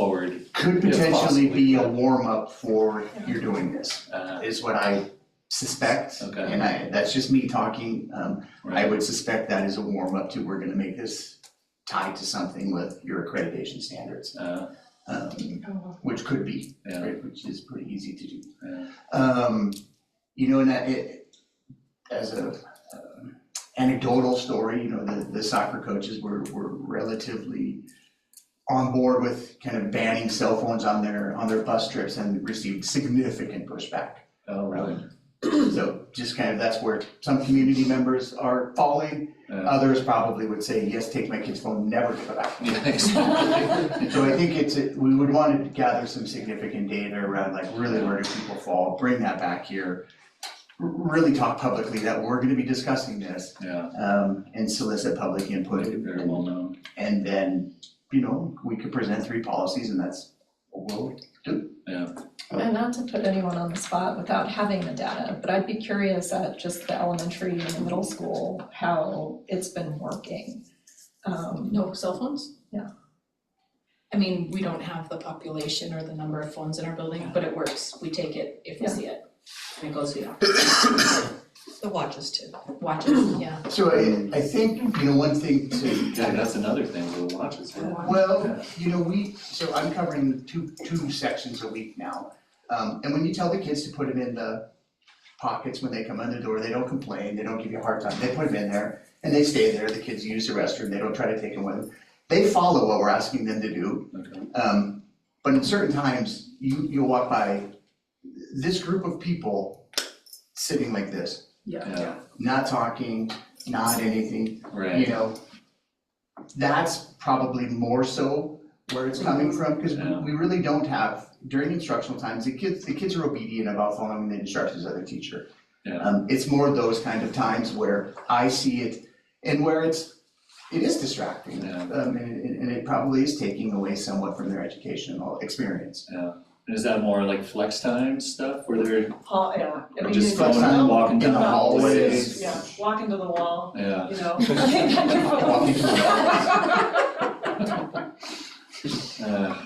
forward, could Yes, potentially be a possibly. warm-up for you're doing this, uh, is what I suspect. Okay. And I, that's just me talking, um, I right, would suspect that is a warm-up to, we're gonna make this tied to something with your accreditation standards, uh, um, Oh, which could be, yeah, right, which is pretty easy to do. yeah, Um, you know, and that it, as a um, anecdotal story, you know, the, the soccer coaches were, were relatively on board with kind of banning cell phones on their, on their bus trips and received significant pushback. oh, really, So just kind of, that's where some community members are falling. uh, Others probably would say, yes, take my kid's phone, never give it back. yeah, exactly. So I think it's, a- we would want to gather some significant data around like really where do people fall, bring that back here. r- Really talk publicly that we're gonna be discussing this, Yeah, um, and solicit public input. make it very well known, And then, you know, we could present three policies and that's, well, And not to put anyone on the spot without having the data, but I'd be curious at just the elementary and the middle school, how it's been working. Um, No cell phones? Yeah. I mean, we don't have the population or the number of phones in our building, but it works. We take it if we Yeah. see it. And it goes via The watches too. watches, yeah. so I, I think, you know, one thing to. yeah, that's another thing, we'll watch it, yeah. Well, you know, we, so I'm covering two, two sections a week now. Um, and when you tell the kids to put them in the pockets when they come in the door, they don't complain, they don't give you a hard time, they put them in there and they stay there, the kids use the restroom, they don't try to take them with them. They follow what we're asking them to do, okay, um, but in certain times, you, you'll walk by this group of people sitting like this, yeah, not talking, not anything, you right, know, that's probably more so where it's coming from, because Yeah. we really don't have, during instructional times, the kids, the kids are obedient about following the instructions of their teacher. Yeah. Um, it's more those kind of times where I see it and where it's, it is distracting. Yeah. Um, and, it- and it probably is taking away somewhat from their educational experience. And is that more like flex time stuff, where they're Paul, yeah. I Or mean, just you- phone time, walking in the down the hallways. hallways. Yeah, walk into the wall, yeah, you know. Walk into the uh,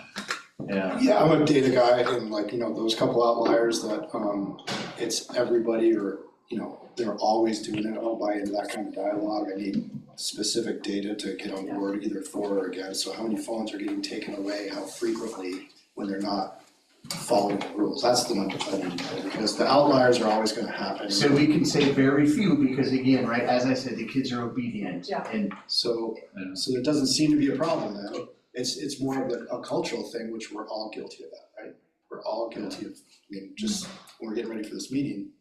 yeah, Yeah, I'm a data guy and like, you know, those couple outliers that um it's everybody or, you know, they're always doing it, I'll buy into that kind of dialogue, I need specific data to get on board either for or against, so how many phones are getting taken away, how frequently when they're not following the rules, that's the one that I need to know, because the outliers are always gonna happen. So we can say very few, because again, right, as I said, the kids are obedient. Yeah. And So, Yeah. so there doesn't seem to be a problem then, it's, it's more of a, a cultural thing, which we're all guilty of that, right? We're all guilty of, I mean, just, when we're getting ready for this meeting,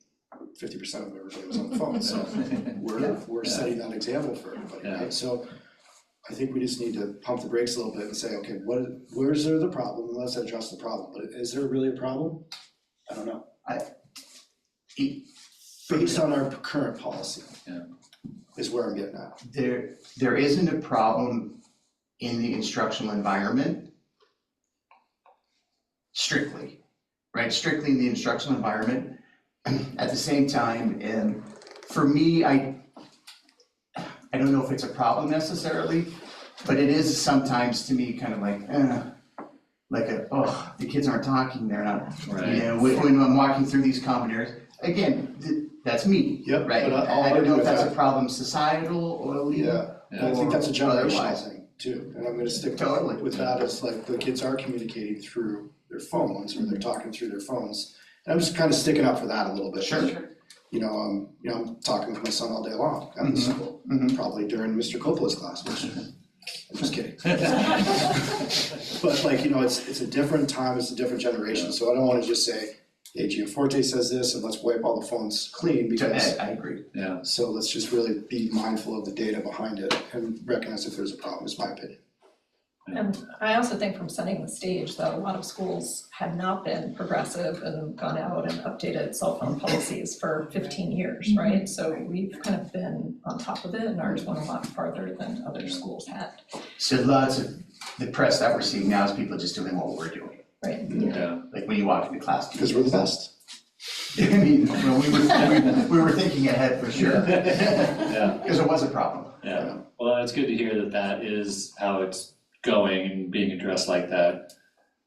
fifty percent of everybody was on the phone, so yeah, we're, Yeah. we're setting that example for everybody, Yeah. right? So I think we just need to pump the brakes a little bit and say, okay, what, where's there the problem, let's address the problem, but is there really a problem? I don't know. I- it- Based on our current policy. Yeah. Is where I'm getting at. there, there isn't a problem in the instructional environment strictly, right? Strictly in the instructional environment. At the same time, and for me, I, I don't know if it's a problem necessarily, but it is sometimes to me kind of like, eh, like a, oh, the kids aren't talking, they're not, you right, know, when, when I'm walking through these common areas, again, th- that's me, Yep, right? but I- I'll I don't argue know if with that's that. a problem societal or legal. Yeah, and I think that's a or generational otherwise. thing too, and I'm gonna stick Totally. with that, it's like the kids are communicating through their phones, or they're talking through their phones. And I'm just kind of sticking up for that a little bit. Sure. You know, um, you know, I'm talking with my son all day long at Mhm. the school, Mhm. probably during Mr. Coppola's class, which, I'm just kidding. But like, you know, it's, it's a different time, it's a different generation, so I don't wanna just say, hey, Giaforte says this, and let's wipe all the phones clean, To- because I, I agree. yeah, so let's just really be mindful of the data behind it and recognize if there's a problem, is my opinion. And I also think from setting the stage, that a lot of schools have not been progressive and gone out and updated cell phone policies for fifteen Mm-hmm. years, right? So we've kind of been on top of it and ours went a lot farther than other schools had. So lots of, the press that we're seeing now is people just doing what we're doing. yeah, Like when you walk into class. do you- Because we're the best. I mean, well, we were, we, we were thinking ahead for sure. yeah. Because it was a problem. Yeah, well, it's good to hear that that is how it's going and being addressed like that.